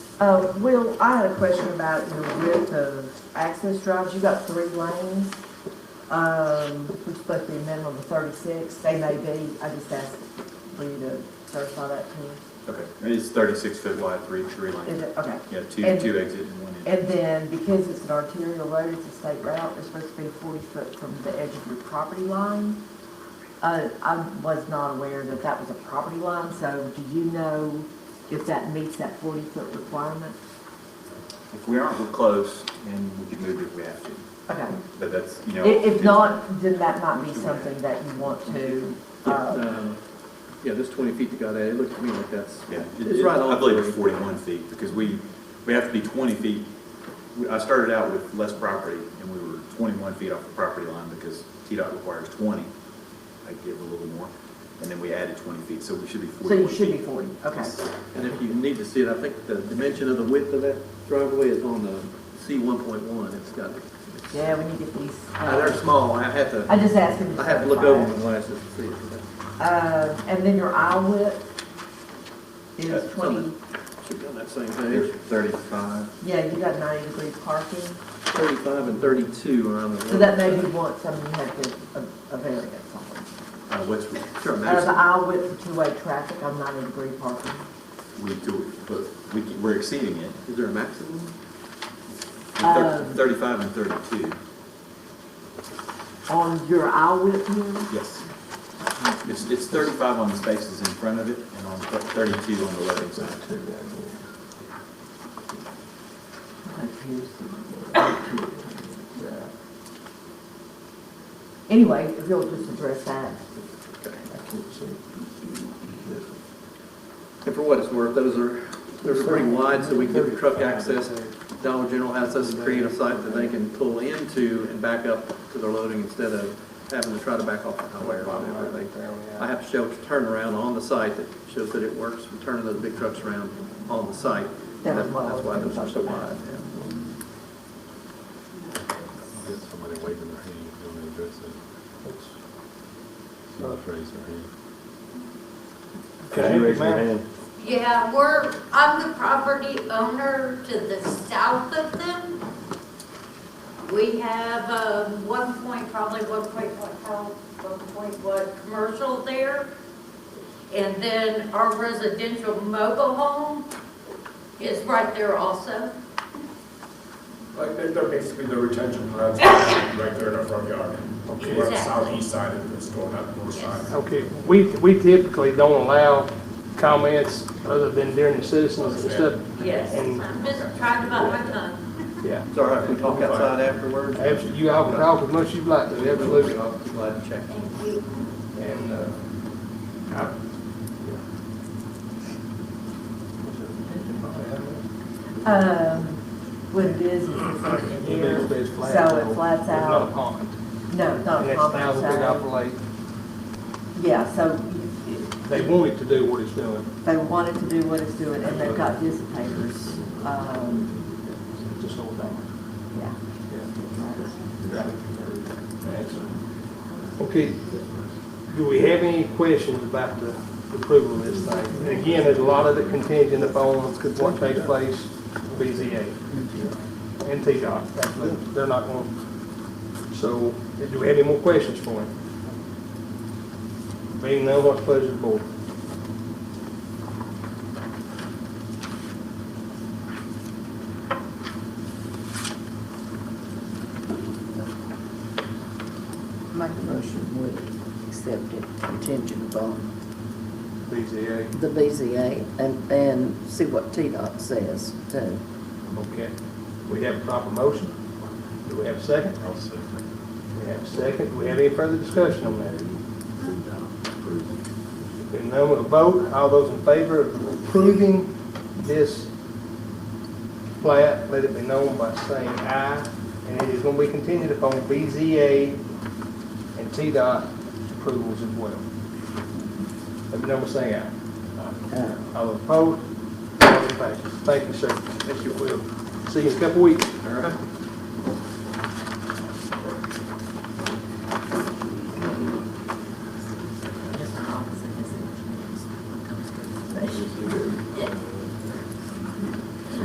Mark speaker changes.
Speaker 1: Uh, Will, I had a question about your width of access drives. You got three lanes, um, which is supposed to be a minimum of thirty-six. They may be, I just asked for you to certify that to me.
Speaker 2: Okay, and it's thirty-six foot wide for each tree
Speaker 1: Is
Speaker 2: lane.
Speaker 1: it, okay.
Speaker 2: Yeah, two,
Speaker 1: And-
Speaker 2: two exit and one in.
Speaker 1: And then because it's an arterial road, it's a state route, it's supposed to be forty foot from the edge of your property line. Uh, I was not aware that that was a property line, so do you know if that meets that forty foot requirement?
Speaker 2: If we aren't, we're close, and we can move if we have to,
Speaker 1: Okay.
Speaker 2: but that's, you know.
Speaker 1: I- If
Speaker 2: it's-
Speaker 1: not, then that might be something that you want to,
Speaker 3: Yeah,
Speaker 1: uh,
Speaker 3: uh, Yeah, this twenty feet that got added, it looked to me like that's,
Speaker 2: Yeah, it-
Speaker 3: it's
Speaker 2: it-
Speaker 3: right
Speaker 2: I
Speaker 3: on.
Speaker 2: believe it's forty-one feet, because we, we have to be twenty feet. We- I started out with less property, and we were twenty-one feet off the property line, because TDOT requires twenty. I give a little more, and then we added twenty feet, so we should be
Speaker 1: so you
Speaker 2: forty-one
Speaker 1: should be
Speaker 2: feet.
Speaker 1: forty, okay.
Speaker 3: And if you need to see it, I think the dimension of the width of that driveway is on the C one point one, it's got,
Speaker 1: Yeah, we need to get these,
Speaker 3: Uh, they're
Speaker 1: uh,
Speaker 3: small, I have to,
Speaker 1: I just asked him to
Speaker 3: I have to look
Speaker 1: certify
Speaker 3: over my
Speaker 1: it.
Speaker 3: glasses to see it.
Speaker 1: Uh, and then your aisle width
Speaker 2: That's on
Speaker 1: is
Speaker 2: the-
Speaker 1: twenty,
Speaker 3: Should be on that same page,
Speaker 2: There's Thirty-five.
Speaker 1: yeah, you got ninety degree parking.
Speaker 3: thirty-five and thirty-two are on the.
Speaker 1: So that may be one, something you have to, uh, a, a variance on.
Speaker 2: Uh, what's,
Speaker 3: Sure,
Speaker 1: Uh, the
Speaker 3: Madison.
Speaker 1: aisle width for two-way traffic, I'm ninety degree parking.
Speaker 2: we do, but we, can- we're exceeding it.
Speaker 3: Is there a maximum?
Speaker 2: Thir-
Speaker 1: Um,
Speaker 2: Thirty-five and thirty-two,
Speaker 1: On your aisle width here,
Speaker 2: yes. It's, it's thirty-five on the spaces in front of it, and on thir- thirty-two on the left side.
Speaker 1: anyway, if you'll just address that.
Speaker 3: And for what it's worth, those are, they're pretty wide, so we can give truck access. Dollar General has us create a site that they can pull into and back up to their loading instead of having to try to back off the highway or whatever. They- I have to show turnaround on the site that shows that it works from turning those big trucks around on the site.
Speaker 1: That was
Speaker 3: That's
Speaker 1: what I was
Speaker 3: why those are so
Speaker 1: talking about.
Speaker 3: wide. yeah.
Speaker 4: Get somebody waving their hand, you want to address it? Someone's raised their hand.
Speaker 5: Could you raise your hand?
Speaker 6: Yeah, we're, I'm the property owner to the south of them. We have, um, one point, probably one point, what, how, one point, what, commercial there. And then our residential mobile home is right there also.
Speaker 7: Like, they're, they're basically the retention ponds right there in our front yard. We're on the
Speaker 6: Exactly.
Speaker 7: southeast side of the store, not the north
Speaker 6: Yes.
Speaker 7: side.
Speaker 5: Okay, we, we typically don't allow comments other than during the citizens and stuff.
Speaker 6: Yes,
Speaker 5: And-
Speaker 6: I'm just trying to bite my tongue.
Speaker 5: Yeah,
Speaker 3: It's all right, if we talk outside afterwards.
Speaker 5: absolutely, you all can talk as much as you like, to, absolutely.
Speaker 3: I'll be glad to check.
Speaker 6: Thank you.
Speaker 5: And, uh, I-
Speaker 1: Um, what it is, is it's like in here,
Speaker 5: It's flat,
Speaker 1: so it flats
Speaker 5: It's not a
Speaker 1: out. Oh,
Speaker 5: pond.
Speaker 1: No, it's not
Speaker 5: And
Speaker 1: a
Speaker 5: it's
Speaker 1: common,
Speaker 5: now the big
Speaker 1: so,
Speaker 5: apple lake.
Speaker 1: yeah, so you-
Speaker 5: They want it to do what it's doing.
Speaker 1: they wanted to do what it's doing, and they've got dissipators, um,
Speaker 5: Just hold on.
Speaker 1: yeah.
Speaker 5: Okay, do we have any questions about the approval of this thing? And again, there's a lot of it contingent upon what takes place with BZA and TDOT. Absolutely. They're not going, to so do we have any more questions for him? Being none, what's the pleasure of the board?
Speaker 8: Make a motion, we accept it contingent upon
Speaker 5: BZA,
Speaker 8: the BZA and, and see what TDOT says too.
Speaker 5: okay. We have a proper motion? Do we have a second?
Speaker 4: I'll say.
Speaker 5: We have a second. Do we have any further discussion on that? Hearing none, we'll vote. All those in favor of approving this plat, let it be known by saying aye. And it is going to be contingent upon BZA and TDOT approvals as well. Let me know by saying aye.
Speaker 8: Uh,
Speaker 5: All opposed? All in favor? Thank you, sir. Thank you, Will. See you in a couple weeks.
Speaker 3: All right.